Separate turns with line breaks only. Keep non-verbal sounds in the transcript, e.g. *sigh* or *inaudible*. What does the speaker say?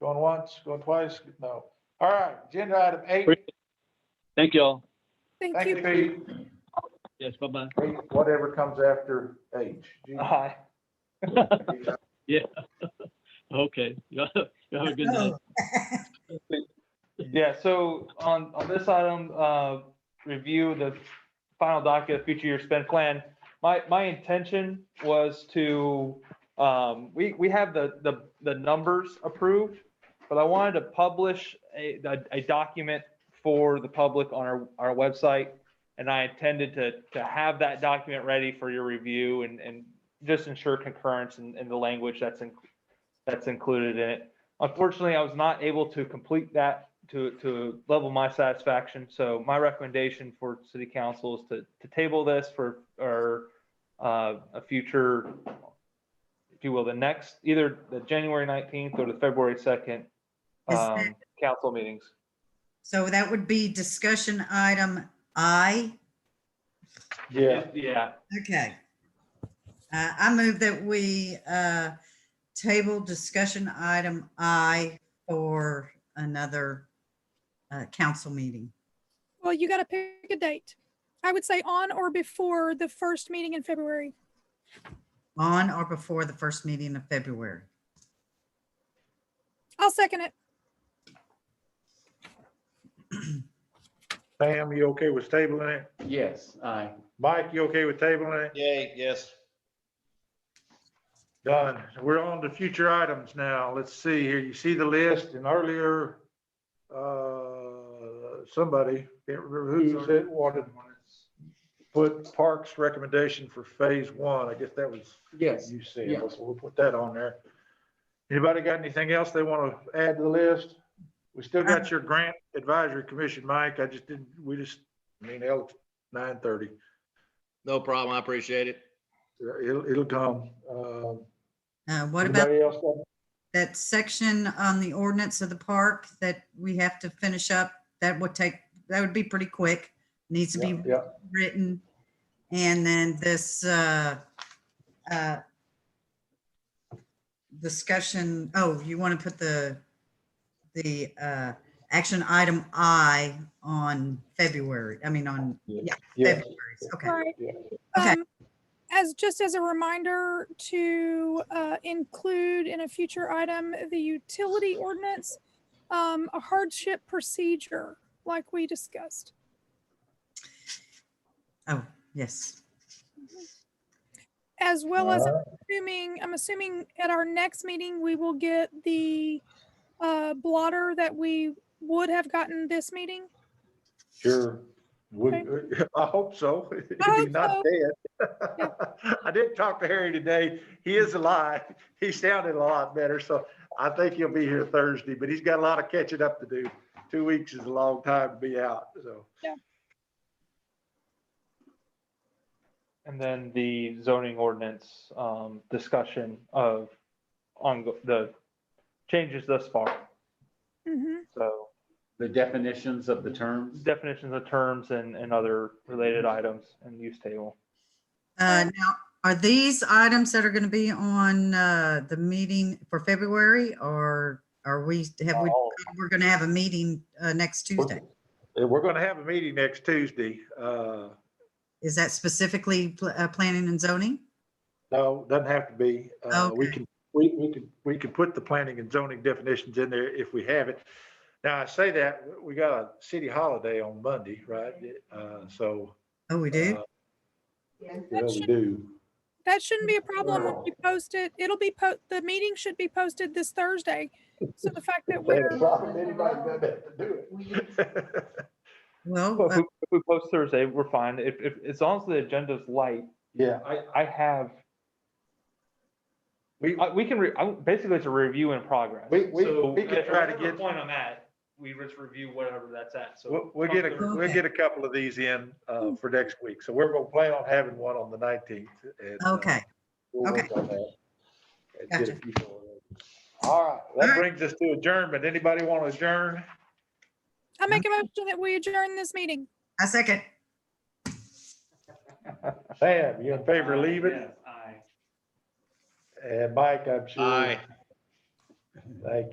Going once, going twice? No. All right, agenda item eight.
Thank you all.
Thank you, Pete.
Yes, bye-bye.
Eight, Whatever comes after H. G.
Aye.
Yeah. Okay. *laughs* You have a good night.
Yeah, so on, on this item, uh, review the final docket of future year spend plan. My, my intention was to, um, we, we have the, the, the numbers approved, but I wanted to publish a, a, a document for the public on our, our website. And I intended to, to have that document ready for your review and, and just ensure concurrence in, in the language that's, in- that's included in it. Unfortunately, I was not able to complete that to, to level my satisfaction. So my recommendation for city council is to, to table this for, or, uh, a future, if you will, the next, either the January 19th or the February 2nd,
Is
um, council meetings.
So that would be discussion item I.
*laughs* Yeah,
Yeah,
Okay. Uh, I move that we, uh, table discussion item I for another, uh, council meeting.
Well, you got to pick a date. I would say on or before the first meeting in February.
On or before the first meeting of February.
I'll second it.
Sam, you okay with tabling it?
Yes, aye.
Mike, you okay with tabling it?
Yay, yes.
Done. We're on to future items now. Let's see here. You see the list and earlier, uh, somebody, can't remember who said, wanted, put Parks recommendation for phase one. I guess that was
Yes,
you said.
yeah.
We'll put that on there. Anybody got anything else they want to add to the list? We still
Uh.
got your grant advisory commission, Mike. I just didn't, we just, I mean, L nine thirty.
No problem. I appreciate it.
It'll, it'll come. Um,
Uh, what about
Anybody else? got-
that section on the ordinance of the park that we have to finish up? That would take, that would be pretty quick. Needs to be
Yeah, yeah.
written. And then this uh, uh, discussion, oh, you want to put the, the uh, action item I on February, I mean, on
Yes.
February's, okay.
Right.
Yeah.
Okay.
Um, As, just as a reminder to uh, include in a future item, the utility ordinance, um, a hardship procedure like we discussed.
Oh, yes.
As well as
Uh-huh.
I'm assuming, I'm assuming at our next meeting, we will get the uh, blotter that we would have gotten this meeting.
Sure. We- *laughs* I hope so. If
I
he's not
hope
dead. *laughs* I did talk to Harry today. He is alive. *laughs* He sounded a lot better, so I think he'll be here Thursday, but he's got a lot of catching up to do. Two weeks is a long time to be out, so.
and then the zoning ordinance, um, discussion of on the changes thus far.
Mhm.
So
the definitions of the terms.
definitions of terms and, and other related
Mm-hmm.
items and use table.
Uh, Now, are these items that are going to be on uh, the meeting for February or are we, have we,
All-
we're going to have a meeting uh, next Tuesday?
Uh, We're gonna have a meeting next Tuesday. Uh,
Is that specifically pl- uh, planning and zoning?
No, doesn't have to be. Uh, We
Okay.
can, we, we can, we can put the planning and zoning definitions in there if we have it. Now, I say that, we got a city holiday on Monday, right? Uh, So.
Oh, we do?
uh,
That
Yeah, we
should-
do.
That shouldn't be a problem when we post it. It'll be, po- the meeting should be posted this Thursday. So the fact that
They had a
we're,
problem, anybody done that to do it.
Well,
Well, If
uh,
we, if we post Thursday, we're fine. If, if, as long as the agenda's light,
Yeah,
I, I have,
we,
I, we can, re- I, basically it's a review in progress.
we, we,
So
we can
at
try to
whatever
get,
Point on that, we just review whatever that's at. So
we'll, we'll get a, we'll
Okay.
get a couple of these in, uh, for next week. So we're gonna plan on having one on the nineteenth. uh,
okay. okay. Gotcha.
All right,
All
that
right.
brings us to adjournment. Anybody want to adjourn?
I make a motion that we adjourn this meeting.
I second.
Sam, you in favor of leaving?
Yes, aye.
And Mike, I'm sure.
Aye.
Thank you.